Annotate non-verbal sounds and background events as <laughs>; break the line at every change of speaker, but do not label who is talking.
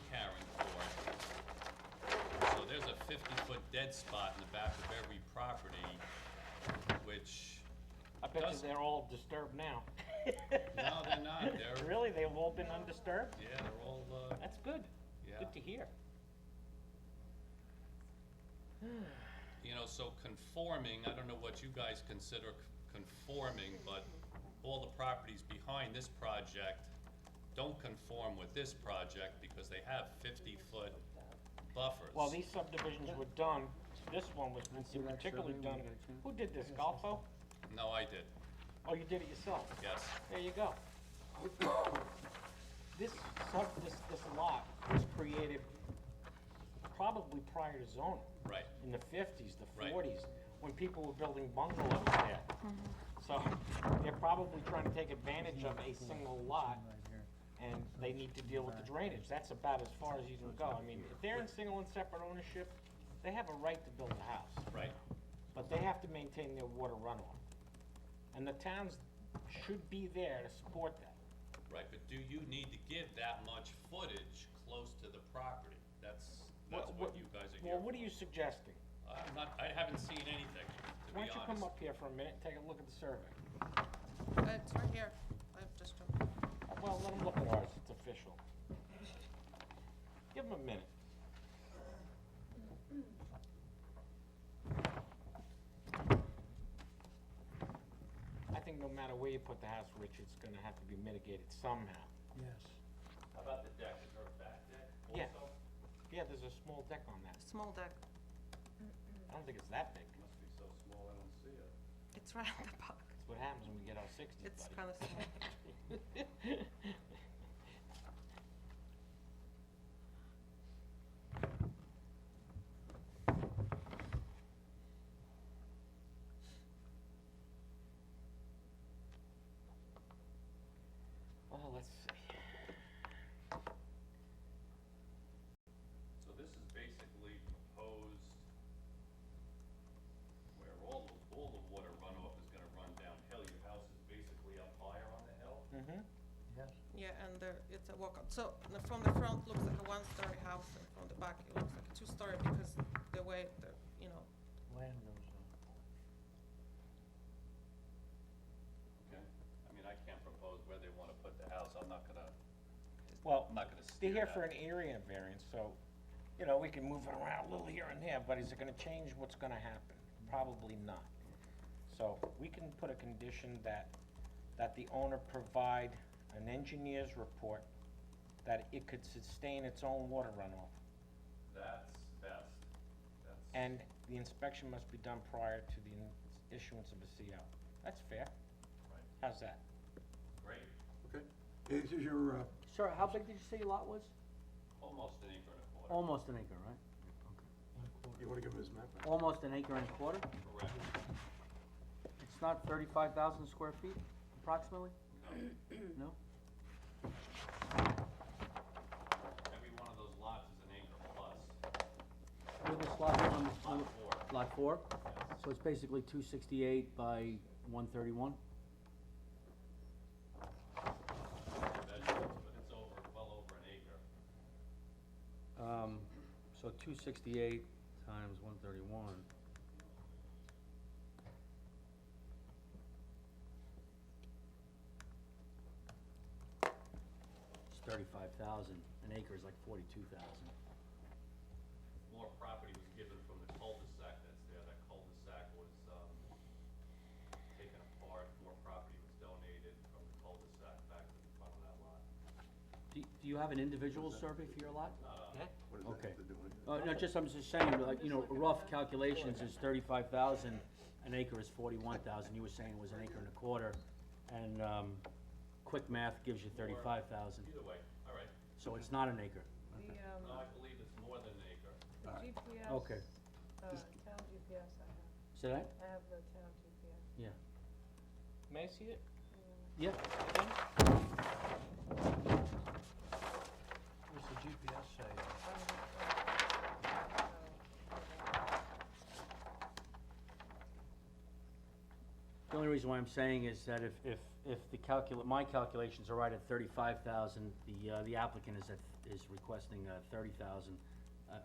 fifty-foot dead spot in the back of every property, which,
I bet you
Does-
they're all disturbed now.
no, they're not,
<laughs>
they're,
Really, they've all been undisturbed?
yeah, they're all, uh,
That's good.
yeah.
Good to hear.
You know, so conforming, I don't know what you guys consider c- conforming, but all the properties behind this project don't conform with this project because they have fifty-foot buffers.
Well, these subdivisions were done, this one was in particularly done, who did this, Golfo?
No, I did,
Oh, you did it yourself,
yes,
there you go. This sub, this, this lot was created probably prior to zoning,
right,
in the fifties, the
Right.
forties, when people were building bungalows there. So, they're probably trying to take advantage of a single lot, and they need to deal with the drainage, that's about as far as you can go. I mean, if they're in single and separate ownership, they have a right to build a house.
right,
But they have to maintain their water runoff. And the towns should be there to support that.
right, but do you need to give that much footage close to the property? That's, that's what you guys are
Well,
here
what are you suggesting?
for. I'm not, I haven't seen anything, to be
Why
honest.
don't you come up here for a minute and take a look at the survey?
Uh, It's right here. I've just,
Well, let them look at ours, it's official. Give them a minute. I think no matter where you put the house, Rich, it's gonna have to be mitigated somehow.
Yes.
How about the deck, is there a back deck
Yeah.
also?
Yeah, there's a small deck on that.
small deck.
I don't think it's that big.
Must be so small, I don't see it.
It's right at the back.
That's what happens when we get our sixties,
It's
buddy.
kind of small.
Well, let's see.
So this is basically proposed where all, the- all the water runoff is gonna run downhill, your house is basically up higher on the hill?
Mm-hmm.
Yeah, and there, it's a walkout. So the- from the front looks like a one-story house, and from the back it looks like a two-story because the way the, you know,
Land goes on.
Okay, I mean, I can't propose where they wanna put the house, I'm not gonna,
Well,
I'm not gonna
they're
steer
here
that.
for an area variance, so, you know, we can move it around a little here and there, but is it gonna change what's gonna happen? Probably not. So, we can put a condition that, that the owner provide an engineer's report that it could sustain its own water runoff,
That's best, that's.
and the inspection must be done prior to the in- issuance of a CO. That's fair.
Right.
How's that?
Great,
Okay, this is your, uh,
Sir, how big did you say your lot was?
almost an acre and a quarter,
Almost an acre, right?
you wanna give him his map? back?
Almost an acre and a quarter?
correct,
It's not thirty-five thousand square feet <clears throat> approximately? No.
every one of those lots is an acre plus,
Where this lot is on the- on
lot
the-
four,
Lot four?
yes.
So it's basically two sixty-eight by one thirty-one?
vegetables, but it's over, well over an acre.
Um, so two sixty-eight times one thirty-one. It's thirty-five thousand, an acre is like forty-two thousand.
More property was given from the cul-de-sac that's there, that cul-de-sac was, um, taken apart, more property was donated from the cul-de-sac back to the front of that lot.
Do, do you have an individual survey for your lot?
What does that
Okay.
have to do with it?
Uh, no, just, I'm just saying, like, you know, rough calculations is thirty-five thousand, an acre is forty-one thousand, you were saying it was an acre and a quarter, and, um, quick math gives you thirty-five thousand,
Either way, all right,
so it's not an acre.
The,
no,
um,
I believe it's more than an acre.
the GPS.
Okay.
Uh, town GPS I have,
Is that?
I have the town GPS.
Yeah.
May I see it?
Yeah,
What's the GPS say?
uh,
the only reason why I'm saying is that if, if, if the calcul, my calculations are right at thirty-five thousand, the, uh, the applicant is at, is requesting, uh, thirty thousand,